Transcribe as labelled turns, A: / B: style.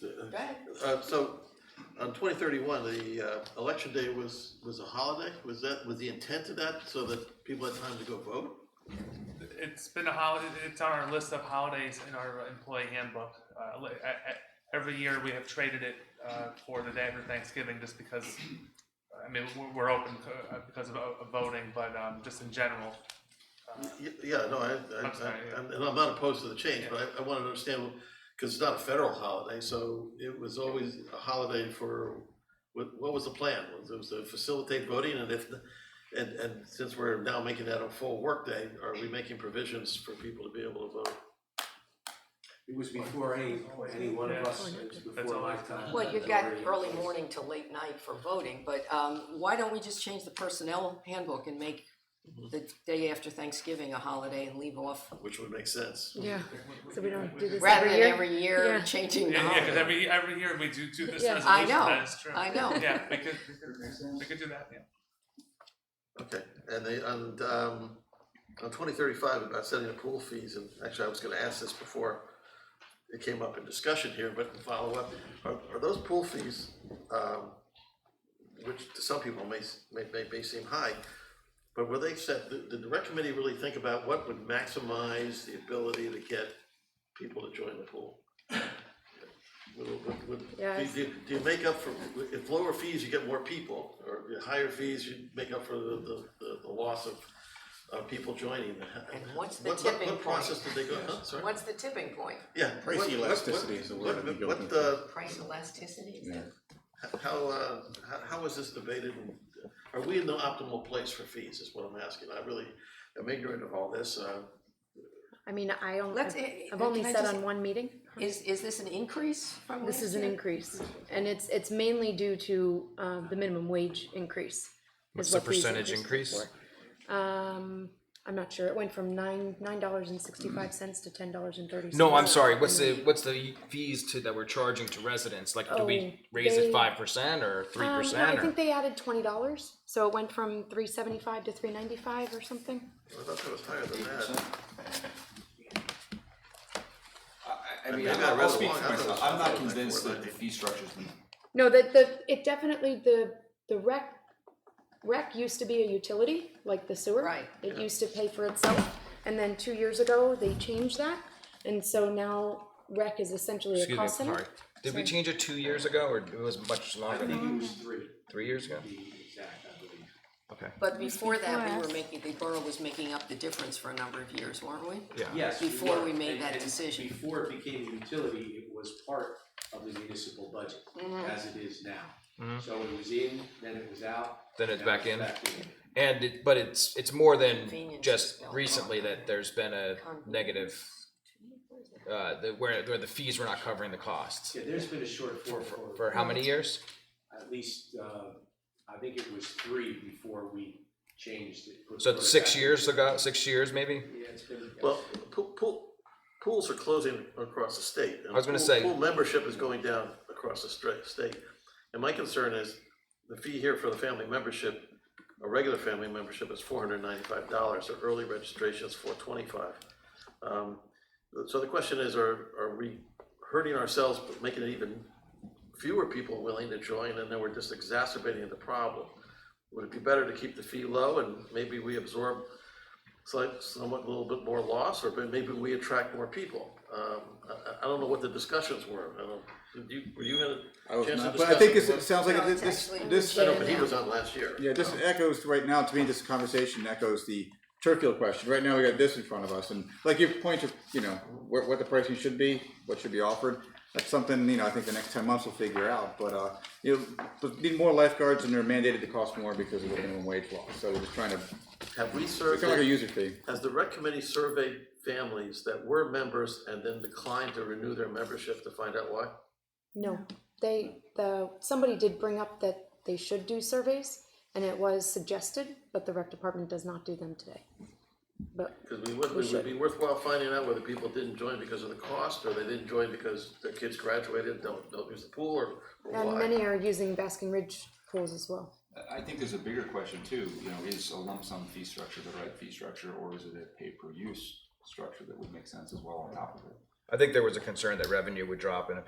A: Go ahead.
B: Uh, so, on twenty thirty-one, the, uh, election day was, was a holiday, was that, was the intent of that, so that people had time to go vote?
C: It's been a holiday. It's on our list of holidays in our employee handbook. Uh, li- a- a- every year we have traded it uh, for the day after Thanksgiving, just because. I mean, we're, we're open to, uh, because of, of voting, but um, just in general. Uh,
B: Y- Yeah, no, I, I,
C: I'm sorry,
B: I-
C: yeah.
B: I'm- and I'm not opposed to the change, but I, I wanted to understand, because it's not a federal holiday, so it was always a holiday for, what, what was the plan? Was it was to facilitate voting, and if, and, and since we're now making that a full workday, are we making provisions for people to be able to vote?
D: It was before any, any one of us, it was
C: That's
D: before
C: all I-
D: my time.
A: Well, you've got early morning to late night for voting, but um, why don't we just change the personnel handbook and make
E: Mm-hmm.
A: the day after Thanksgiving a holiday and leave off?
B: Which would make sense.
F: Yeah, so we don't do this
A: Rather
F: every
A: than
F: year?
A: every year
F: Yeah.
A: changing the
C: Yeah, yeah, because
A: holiday.
C: every every year we do do this
F: Yeah. I
A: I
C: resolution.
A: know,
C: That is true.
A: I know.
C: Yeah, we could we could, we could do that. Yeah.
B: Okay, and they, and, um, on twenty thirty-five, about setting the pool fees, and actually, I was gonna ask this before it came up in discussion here, but follow up, are, are those pool fees, um, which to some people may, s- may, may, may seem high, but were they set, did, did the rec committee really think about what would maximize the ability to get people to join the pool? Would- would- would- do,
F: Yes.
B: do, do you make up for, if lower fees, you get more people, or if higher fees, you make up for the, the- the, the loss of, of people joining?
A: And what's the
B: What- what-
A: tipping
B: What
A: point?
B: process did they go, huh, sorry?
A: What's the tipping point?
B: Yeah.
E: Price
B: what- what-
E: elasticity is the word
B: what-
E: I'd be
B: what-
E: going
B: What, uh,
A: Price elasticity?
E: Yeah.
B: how, uh, how, how was this debated? and Are we in the optimal place for fees is what I'm asking. I really am ignorant of all this. Uh,
F: I mean, I only,
A: Let's-
F: I've- I've only
A: can I
F: sat
A: just-
F: on one meeting.
A: Is, is this an increase from
F: This
A: last
F: is an
A: year?
F: increase, and it's, it's mainly due to, um, the minimum wage increase.
G: What's
F: is
G: the
F: what these
G: percentage
F: increases
G: increase?
F: were. Um, I'm not sure, it went from nine, nine dollars and sixty-five cents to ten dollars and thirty cents. Um,
G: No, I'm sorry. What's the what's the fees to that we're charging to residents? Like, do we
F: Oh,
G: raise
F: they-
G: it five percent or three
F: Um, no,
G: percent?
F: I think they added twenty dollars, so it went from three seventy-five to three ninety-five or something.
B: I thought that was higher than that.
H: I, I mean,
B: maybe I
H: I'll,
B: read it
H: I'll speak
B: wrong. I thought it
H: for
B: was
H: myself, I'm not
B: something like
H: convinced that
B: 490.
H: the fee structure's been
F: No, the, the, it definitely, the, the rec, rec used to be a utility, like the sewer.
A: Right.
F: It used to pay for itself, and then two years ago, they changed that, and so now rec is essentially a
G: Excuse me,
F: cost center.
G: sorry. Did we change it two years ago, or it was much
D: I
G: longer?
D: think
G: Than
D: it was three,
G: three years ago.
D: to be exact, I believe.
G: Okay.
A: But before that, we
F: before
A: were
F: us.
A: making, the borough was making up the difference for a number of years, weren't we?
G: Yeah.
D: Yes.
A: Before
D: were.
A: we made
D: And-
A: that
D: and
A: decision.
D: Before it became a utility, it was part of the municipal budget,
A: Mm-hmm.
D: as it is now.
G: Mhm.
D: So it was in, then it was out.
G: Then it's
D: now
G: back in.
D: in.
G: And it, but it's it's more than
A: Convenience is
G: just
A: spelled wrong.
G: recently that there's been a negative. Uh, the, where where the fees were not covering the costs
D: Yeah, there's been a shortfall
G: for, for how many years?
D: At least, uh, I think it was three before we changed it. put-
G: So
D: put it
G: six
D: back in.
G: years ago, six years maybe.
D: Yeah, it's been.
B: Well, pool, pool, pools are closing across the state. and
G: I was gonna
B: pool-
G: say-
B: Pool membership is going down across the stra- state. And my concern is the fee here for the family membership, a regular family membership is four hundred ninety-five dollars, or early registration is four twenty-five. Um, so the question is, are, are we hurting ourselves, but making it even fewer people willing to join, and then we're just exacerbating the problem? Would it be better to keep the fee low and maybe we absorb slight, somewhat, a little bit more loss, or maybe we attract more people? Um, I, I- I don't know what the discussions were, I don't, did you, were you in
E: I
B: a
E: was
B: chance to
E: not,
B: discuss?
E: but I think it's-
B: it?
E: it sounds like
A: No, it's
E: this, this,
A: actually-
E: this,
B: I know, but he
A: Yeah.
B: was on last year.
E: yeah, this echoes right now, to me, this conversation echoes the turf field question. Right now, we got this in front of us, and like your point of, you know, what, what the pricing should be, what should be offered. That's something, you know, I think the next ten months we'll figure out, but, uh, you know, but need more lifeguards and they're mandated to cost more because of the minimum wage law, so we're just trying to,
B: Have we
E: it's kind of like a
B: surveyed,
E: user fee.
B: has the rec committee surveyed families that were members and then declined to renew their membership to find out why?
F: No, they, the, somebody did bring up that they should do surveys, and it was suggested, but the rec department does not do them today. But,
B: Because we would, it would be worthwhile finding out whether people didn't join because of the cost, or they didn't join because their kids graduated, don't, don't use the pool, or, or
F: and
B: why.
F: many are using Basking Ridge pools as well.
H: I think there's a bigger question too, you know, is a lump sum fee structure the right fee structure, or is it a pay-per-use structure that would make sense as well on top of it?
G: I think there was a concern that revenue would drop in a